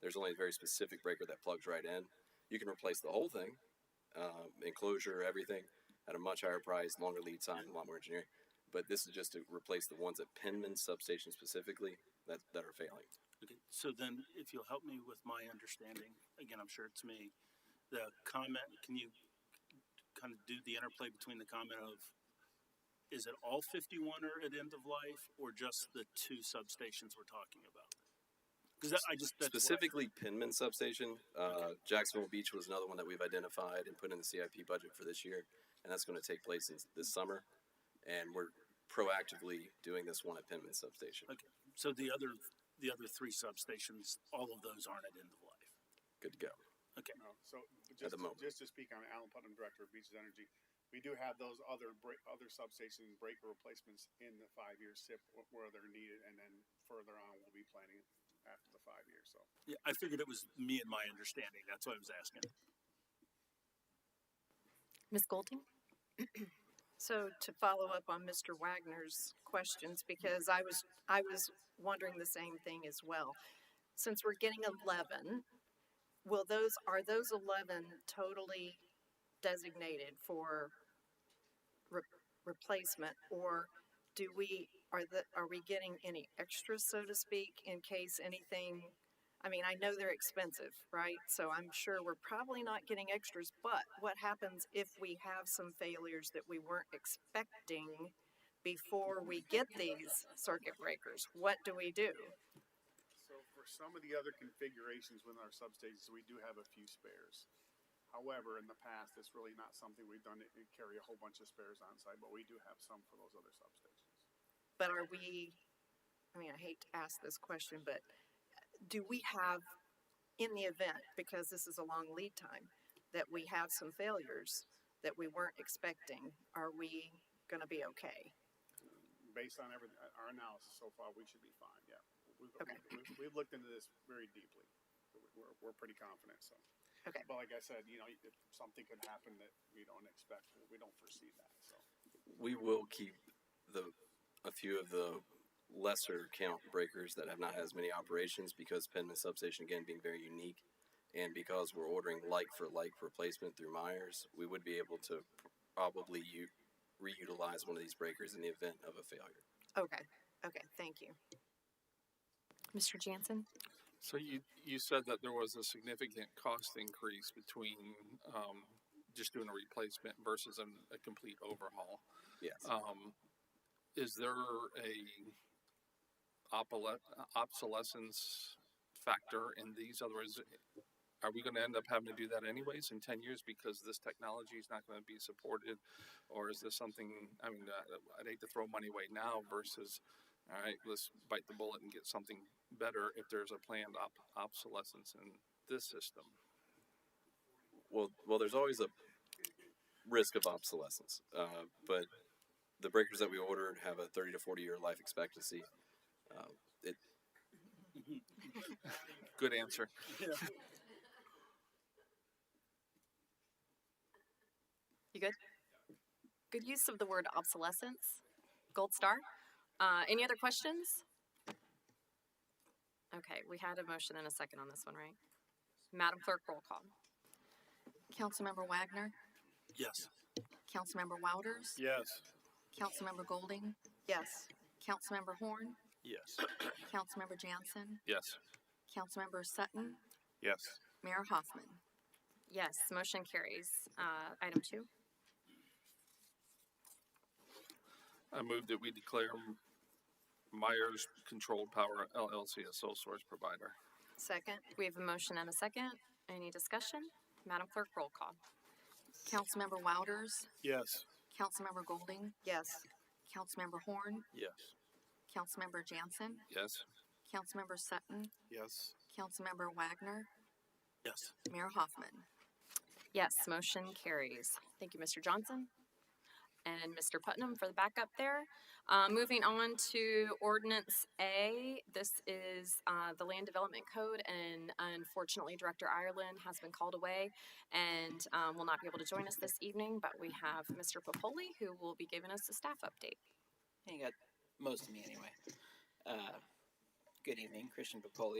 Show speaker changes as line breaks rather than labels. There's only a very specific breaker that plugs right in. You can replace the whole thing, um, enclosure, everything, at a much higher price, longer lead time, a lot more engineering. But this is just to replace the ones at Penman substation specifically that, that are failing.
Okay, so then if you'll help me with my understanding, again, I'm sure it's me, the comment, can you kind of do the interplay between the comment of, is it all fifty-one are at end of life or just the two substations we're talking about? Cause that, I just, that's what I-
Specifically, Penman substation. Uh, Jacksonville Beach was another one that we've identified and put in the CIP budget for this year, and that's going to take place in, this summer. And we're proactively doing this one at Penman substation.
Okay, so the other, the other three substations, all of those aren't at end of life.
Good to go.
Okay,
No, Oh, so but just,
the moment.
just to speak on it, Alan Putnam, Director of Beaches Energy, we do have those other break, other substation breaker replacements in the five-year SIP wh- where they're needed, and then further on, we'll be planning it after the five years, so.
yeah, I figured it was me and my understanding, that's why I was asking.
Ms. Golding?
So to follow up on Mr. Wagner's questions, because I was, I was wondering the same thing as well. Since we're getting eleven, will those, are those eleven totally designated for re- replacement? Or do we, are the, are we getting any extras, so to speak, in case anything? I mean, I know they're expensive, right? So I'm sure we're probably not getting extras, but what happens if we have some failures that we weren't expecting before we get these circuit breakers? What do we do?
So for some of the other configurations within our substations, we do have a few spares. However, in the past, it's really not something we've done to to carry a whole bunch of spares on site, but we do have some for those other substations.
But are we, I mean, I hate to ask this question, but uh, do we have, in the event, because this is a long lead time, that we have some failures that we weren't expecting, are we gonna be okay?
Based on everything, our analysis so far, we should be fine, yeah. We've,
Okay.
we've- we've looked into this very deeply. We're, we're pretty confident, so.
Okay.
But like I said, you know, if something could happen that we don't expect, we don't foresee that, so.
We will keep the a few of the lesser count breakers that have not had as many operations because Penman substation again being very unique, and because we're ordering like for like replacement through Myers, we would be able to probably u- reutilize one of these breakers in the event of a failure.
Okay, okay, thank you.
Mr. Jansen?
So you, you said that there was a significant cost increase between um, just doing a replacement versus an, a complete overhaul.
Yes.
Um, is there a opole- obsolescence factor in these? Otherwise, are we going to end up having to do that anyways in 10 years because this technology is not going to be supported? Or is this something, I mean, uh, I'd hate to throw money away now versus, all right, let's bite the bullet and get something better if there's a planned op- obsolescence in this system.
Well, well, there's always a risk of obsolescence, uh, but the breakers that we ordered have a 30 to 40 year life expectancy. Uh, it,
Good answer.
You good? Good use of the word obsolescence. Gold star. Uh, any other questions? Okay, we had a motion and a second on this one, right? Madam Clerk, roll call.
Councilmember Wagner,
Yes.
Councilmember Wouters,
Yes.
Councilmember Golding,
Yes,
Councilmember Horn,
Yes.
Councilmember Jansen,
Yes.
Councilmember Sutton,
Yes.
Mayor Hoffman.
Yes, motion carries. Uh, item two.
I move that we declare Myers Controlled Power LLC a sole source provider.
second,
We have a motion and a second. Any discussion? Madam Clerk, roll call.
Councilmember Wouters,
Yes.
Councilmember Golding,
yes,
Councilmember Horn,
Yes.
Councilmember Jansen,
Yes.
Councilmember Sutton,
Yes.
Councilmember Wagner,
Yes.
Mayor Hoffman.
Yes, motion carries. Thank you, Mr. Johnson and Mr. Putnam for the backup there. Uh, moving on to Ordinance A. This is uh, the Land Development Code, and unfortunately, Director Ireland has been called away and um, will not be able to join us this evening, but we have Mr. Popoli who will be giving us a staff update.
You got most of me anyway. Uh, good evening, Christian Bacoli,